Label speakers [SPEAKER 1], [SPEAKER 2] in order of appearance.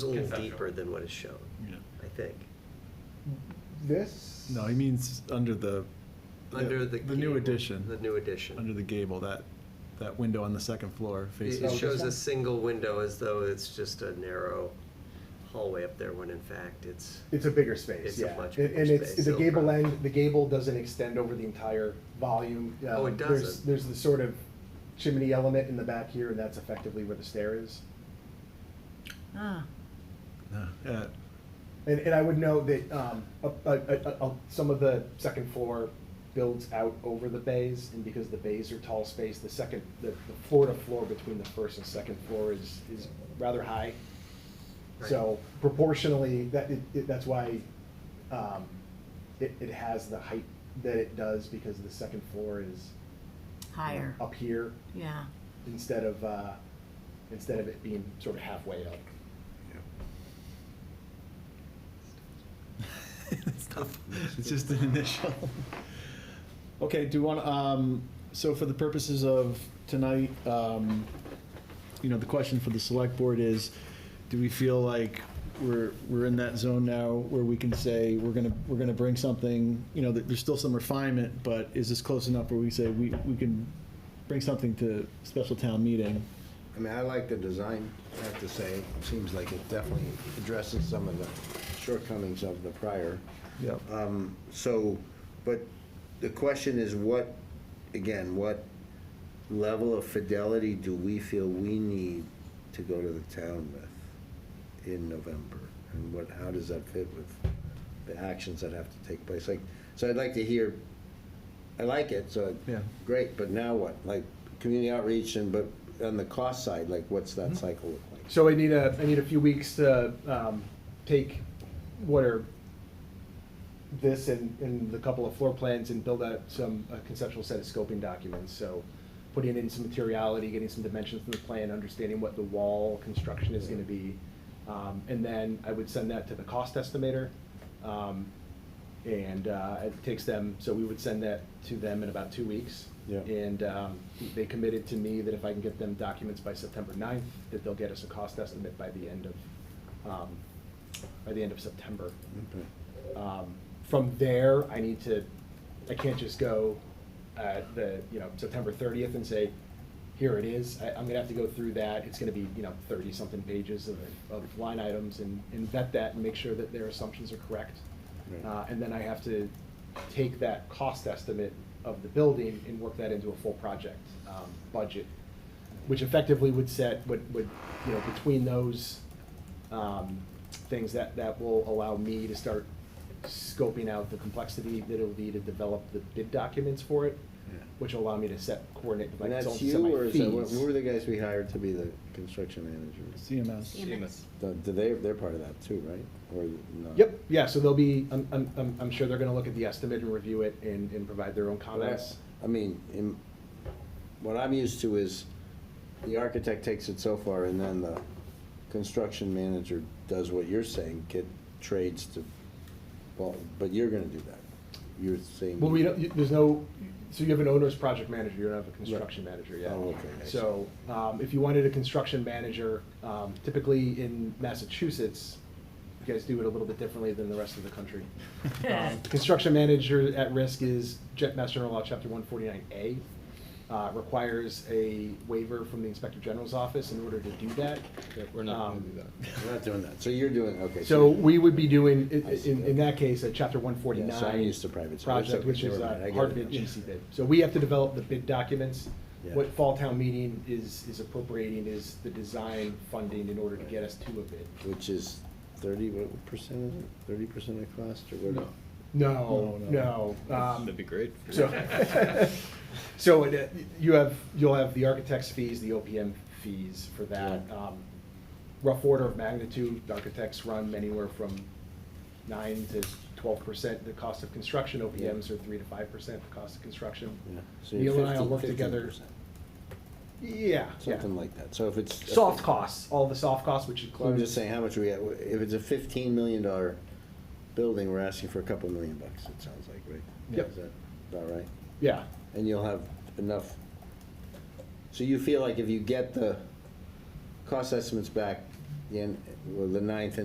[SPEAKER 1] It's a little
[SPEAKER 2] Conceptual.
[SPEAKER 1] deeper than what is shown,
[SPEAKER 3] Yeah.
[SPEAKER 1] I think.
[SPEAKER 4] This?
[SPEAKER 3] No, he means under the.
[SPEAKER 1] Under the.
[SPEAKER 3] The new
[SPEAKER 1] gable-
[SPEAKER 3] addition.
[SPEAKER 1] The new addition.
[SPEAKER 3] Under the gable, that, that window on the second floor
[SPEAKER 1] It-
[SPEAKER 3] faces.
[SPEAKER 4] Oh,
[SPEAKER 1] It
[SPEAKER 4] this
[SPEAKER 1] shows a
[SPEAKER 4] one?
[SPEAKER 1] single window as though it's just a narrow hallway up there, when in fact it's,
[SPEAKER 4] It's a bigger space,
[SPEAKER 1] It's a
[SPEAKER 4] yeah.
[SPEAKER 1] much
[SPEAKER 4] And-
[SPEAKER 1] bigger
[SPEAKER 4] And
[SPEAKER 1] space,
[SPEAKER 4] it's, the
[SPEAKER 1] no
[SPEAKER 4] gable
[SPEAKER 1] problem.
[SPEAKER 4] end, the gable doesn't extend over the entire volume.
[SPEAKER 1] Oh,
[SPEAKER 4] Um,
[SPEAKER 1] it
[SPEAKER 4] there's-
[SPEAKER 1] doesn't.
[SPEAKER 4] There's the sort of chimney element in the back here, and that's effectively where the stair is.
[SPEAKER 5] Ah,
[SPEAKER 3] Yeah.
[SPEAKER 4] And, and I would note that, um, a- a- a- a- some of the second floor builds out over the bays, and because the bays are tall space, the second, the, the floor to floor between the first and second floor is, is rather high. So proportionally, that, it- it, that's why, um, it, it has the height that it does, because the second floor is
[SPEAKER 5] higher,
[SPEAKER 4] up here
[SPEAKER 5] yeah.
[SPEAKER 4] instead of, uh, instead of it being sort of halfway up.
[SPEAKER 3] It's tough. It's just an initial. Okay, do you want, um, so for the purposes of tonight, um, you know, the question for the select board is, do we feel like we're, we're in that zone now where we can say, we're gonna, we're gonna bring something, you know, there- there's still some refinement, but is this close enough where we say, we, we can bring something to special town meeting?
[SPEAKER 6] I mean, I like the design, I have to say. It seems like it definitely addresses some of the shortcomings of the prior.
[SPEAKER 3] Yep.
[SPEAKER 6] Um, So, but the question is what, again, what level of fidelity do we feel we need to go to the town with in November? And what, how does that fit with the actions that have to take place? Like, so I'd like to hear, I like it, so.
[SPEAKER 3] Yeah.
[SPEAKER 6] Great, but now what? Like, community outreach and, but on the cost side, like, what's that cycle look like?
[SPEAKER 4] So I need a, I need a few weeks to um, take what are this and, and the couple of floor plans and build out some a conceptual set of scoping documents. So putting in some materiality, getting some dimensions from the plan, understanding what the wall construction is gonna be. Um, And then I would send that to the cost estimator. um, And uh, it takes them, so we would send that to them in about two weeks.
[SPEAKER 6] Yeah.
[SPEAKER 4] And um, they committed to me that if I can get them documents by September 9th, that they'll get us a cost estimate by the end of, um, by the end of September.
[SPEAKER 6] Okay.
[SPEAKER 4] Um, From there, I need to, I can't just go at the, you know, September 30th and say, here it is. I, I'm gonna have to go through that. It's gonna be, you know, 30-something pages of, of line items and, and vet that and make sure that their assumptions are correct.
[SPEAKER 6] Right.
[SPEAKER 4] Uh, And then I have to take that cost estimate of the building and work that into a full project um, budget, which effectively would set, would, would, you know, between those um, things that, that will allow me to start scoping out the complexity that it'll be to develop the bid documents for it,
[SPEAKER 6] Yeah.
[SPEAKER 4] which will allow me to set, coordinate like
[SPEAKER 6] And
[SPEAKER 4] its own
[SPEAKER 6] that's you, or is that, what
[SPEAKER 4] semi-fees.
[SPEAKER 6] who were the guys we hired to be the construction managers?
[SPEAKER 3] CMS.
[SPEAKER 6] Do do they, they're part of that too, right? Or not?
[SPEAKER 4] Yep, yeah, so they'll be, I'm, I'm, I'm- I'm sure they're gonna look at the estimate and review it and, and provide their own comments.
[SPEAKER 6] I mean, in, what I'm used to is the architect takes it so far and then the construction manager does what you're saying, get trades to, well, but you're gonna do that. You're saying.
[SPEAKER 4] Well, we don't, you- there's no, so you have an owner's project manager, you don't have a construction manager yet.
[SPEAKER 6] Oh, okay, I see.
[SPEAKER 4] So, um, if you wanted a construction manager, um, typically in Massachusetts, you guys do it a little bit differently than the rest of the country. Um, Construction manager at risk is Jet Mass General Law, Chapter one forty-nine A. Uh, requires a waiver from the Inspector General's office in order to do that.
[SPEAKER 7] We're not gonna
[SPEAKER 4] Um,
[SPEAKER 7] do that.
[SPEAKER 6] We're not doing that. So you're doing, okay.
[SPEAKER 4] So
[SPEAKER 6] you're-
[SPEAKER 4] we would be doing, i-
[SPEAKER 6] I see.
[SPEAKER 4] in, in that case, a chapter one
[SPEAKER 6] Yeah, so I'm
[SPEAKER 4] forty-nine
[SPEAKER 6] used to private, so it's
[SPEAKER 4] project,
[SPEAKER 6] okay,
[SPEAKER 4] which
[SPEAKER 6] never
[SPEAKER 4] is
[SPEAKER 6] mind,
[SPEAKER 4] a
[SPEAKER 6] I get
[SPEAKER 4] hard
[SPEAKER 6] it
[SPEAKER 4] bid,
[SPEAKER 6] now.
[SPEAKER 4] GC bid. So we have to develop the bid documents.
[SPEAKER 6] Yeah.
[SPEAKER 4] What fall town meeting is, is appropriating is the design funding in order to get us to a bid.
[SPEAKER 6] Which is thirty, what percent is it? Thirty percent of cost or what?
[SPEAKER 3] No.
[SPEAKER 4] No,
[SPEAKER 3] No,
[SPEAKER 4] no. um,
[SPEAKER 7] That'd be great.
[SPEAKER 4] So, so it, uh, you have, you'll have the architect's fees, the OPM fees for that.
[SPEAKER 6] Yeah.
[SPEAKER 4] Um, Rough order of magnitude, the architects run anywhere from nine to twelve percent the cost of construction. OPMs are three to five percent the cost of construction.
[SPEAKER 6] Yeah, so you're
[SPEAKER 4] Neil and I will work
[SPEAKER 6] 15
[SPEAKER 4] together.
[SPEAKER 6] 15%,
[SPEAKER 4] Yeah, yeah.
[SPEAKER 6] Something like that. So if it's.
[SPEAKER 4] Soft costs, all the soft costs, which
[SPEAKER 6] Well, I'm just
[SPEAKER 4] includes,
[SPEAKER 6] saying, how much we, got- if it's a fifteen million dollar building, we're asking for a couple million bucks, it sounds like, right?
[SPEAKER 4] Yep.
[SPEAKER 6] Is that about right?
[SPEAKER 4] yeah.
[SPEAKER 6] And you'll have enough, so you feel like if you get the cost estimates back the end, well, the ninth and